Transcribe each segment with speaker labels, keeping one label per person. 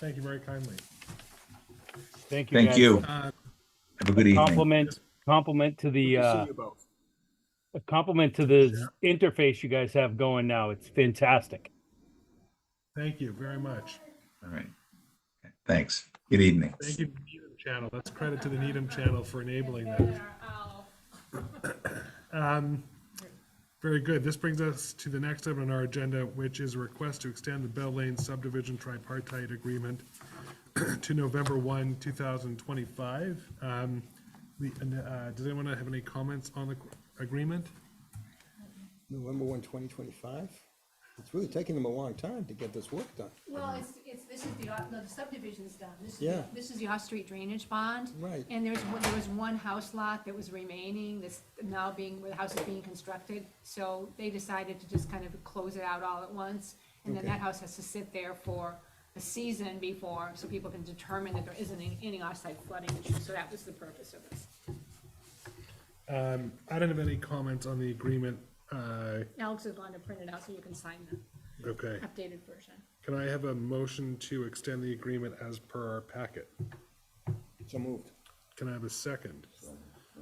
Speaker 1: Thank you very kindly.
Speaker 2: Thank you.
Speaker 3: Thank
Speaker 2: guys.
Speaker 3: you.
Speaker 1: Uh,
Speaker 3: Have a good evening.
Speaker 2: Compliment, compliment to the, uh, a compliment to the interface you guys have going now. It's fantastic.
Speaker 1: Thank you very much.
Speaker 3: All right. Thanks. Good evening.
Speaker 1: Thank you, to Needham Channel. That's credit to the Needham Channel for enabling that. Very good. This brings us to the next item on our agenda, which is a request to extend the Bell Lane subdivision tripartite agreement to November 1, 2025. Um, the- and, uh, Does anyone have any comments on the agreement?
Speaker 4: November 1, 2025? It's really taking them a long time to get this work done.
Speaker 5: Well, it's, it's, this is the, uh, no, the subdivision's done. This is,
Speaker 4: Yeah.
Speaker 5: the- this is the off-street drainage bond.
Speaker 4: Right.
Speaker 5: And there's, one- there was one house lot that was remaining, that's now being, where the house is being constructed. So they decided to just kind of close it out all at once. And then
Speaker 4: Okay.
Speaker 5: that house has to sit there for a season before, so people can determine that there isn't any- any off-site flooding issue. So that was the purpose of this.
Speaker 1: Um, I don't have any comments on the agreement. Uh,
Speaker 5: Alex is going to print it out so you can sign the
Speaker 1: Okay.
Speaker 5: updated version.
Speaker 1: Can I have a motion to extend the agreement as per our packet?
Speaker 4: So moved.
Speaker 1: Can I have a second?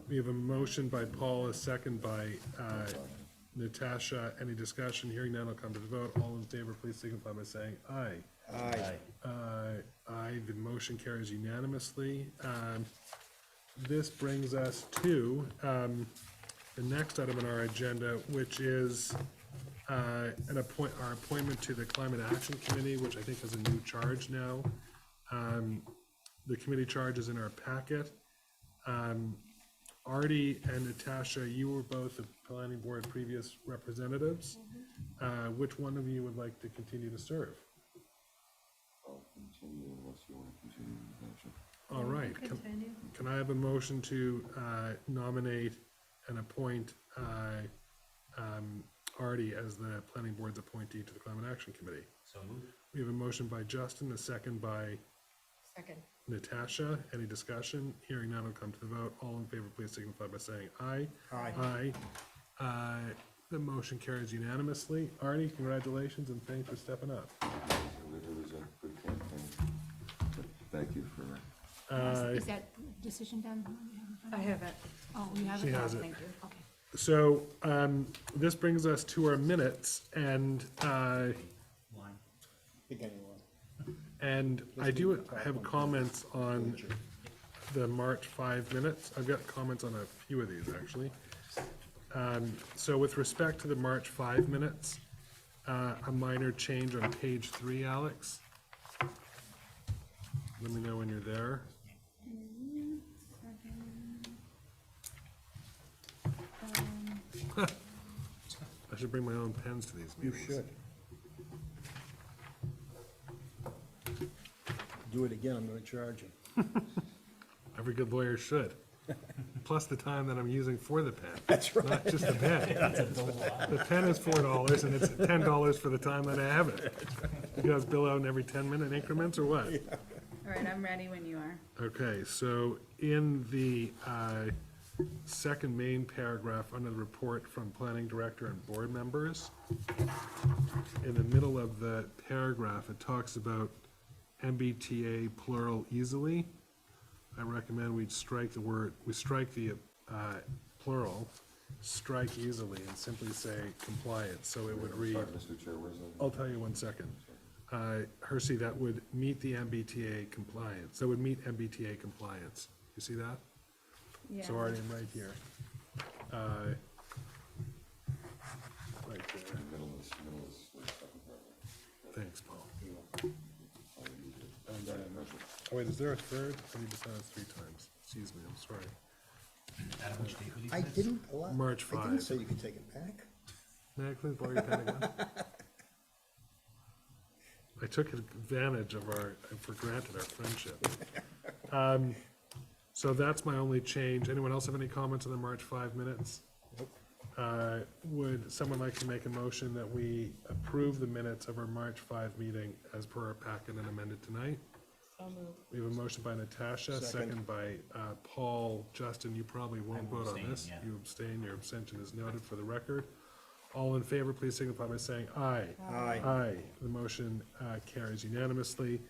Speaker 1: We have a motion by Paul, a second by uh, Natasha. Any discussion? Hearing none, I'll come to the vote. All in favor, please signify by saying aye.
Speaker 4: Aye.
Speaker 1: Uh, Aye, the motion carries unanimously. Um, This brings us to um, the next item on our agenda, which is uh, an appoint, our appointment to the Climate Action Committee, which I think has a new charge now. Um, The committee charge is in our packet. Um, Artie and Natasha, you were both the planning board previous representatives. Uh, Which one of you would like to continue to serve?
Speaker 6: I'll continue unless you want to continue the motion.
Speaker 1: All right. Can- Can I have a motion to uh, nominate and appoint uh, um, Artie as the planning board's appointee to the Climate Action Committee? So moved. We have a motion by Justin, a second by
Speaker 5: Second.
Speaker 1: Natasha. Any discussion? Hearing none, I'll come to the vote. All in favor, please signify by saying aye.
Speaker 4: Aye.
Speaker 1: Aye. Uh, The motion carries unanimously. Artie, congratulations and thanks for stepping up.
Speaker 6: It was- It was a good campaign. But Thank you for
Speaker 1: Uh,
Speaker 5: Is that decision done?
Speaker 7: I haven't.
Speaker 5: Oh, you have it?
Speaker 1: She has it.
Speaker 5: Thank you, okay.
Speaker 1: So um, this brings us to our minutes, and uh,
Speaker 4: Beginning one.
Speaker 1: and I do have comments on the March five minutes. I've got comments on a few of these actually. Um, so with respect to the March five minutes, uh, a minor change on page three, Alex. Let me know when you're there. I should bring my own pens to these
Speaker 4: You
Speaker 1: meetings.
Speaker 4: should. Do it again, I'm gonna charge you.
Speaker 1: Every good lawyer should. Plus the time that I'm using for the pen,
Speaker 4: That's right.
Speaker 1: not just the pen. The pen is four dollars and it's ten dollars for the time that I have it. You guys bill out in every ten minute increments or what?
Speaker 7: All right, I'm ready when you are.
Speaker 1: Okay, so in the uh, second main paragraph under the report from planning director and board members, in the middle of the paragraph, it talks about MBTA plural easily. I recommend we strike the word, we strike the uh, plural, strike easily, and simply say compliance, so it would read.
Speaker 6: Sorry, Mr. Chair, where's the?
Speaker 1: I'll tell you one second. Uh, Hersey, that would meet the MBTA compliance, that would meet MBTA compliance. You see that?
Speaker 7: Yeah.
Speaker 1: So already I'm right here. Uh, Right there,
Speaker 6: Middle of this, middle of this, uh, second paragraph.
Speaker 1: thanks, Paul.
Speaker 6: I'll read it.
Speaker 1: And then- Oh, wait, is there a third? I need to sign it three times. Excuse me, I'm sorry.
Speaker 4: I didn't allow.
Speaker 1: March
Speaker 4: I
Speaker 1: five.
Speaker 4: didn't say you could take it back.
Speaker 1: May I please borrow your pen again? I took advantage of our, for granted our friendship. Um, So that's my only change. Anyone else have any comments on the March five minutes? Uh, Would someone like to make a motion that we approve the minutes of our March five meeting as per our packet and amended tonight? We have a motion by Natasha, second
Speaker 4: Second.
Speaker 1: by uh, Paul. Justin, you probably won't vote on this. You abstain, your abstention is noted for the record. All in favor, please signify by saying aye.
Speaker 4: Aye.
Speaker 1: Aye. The motion uh, carries unanimously.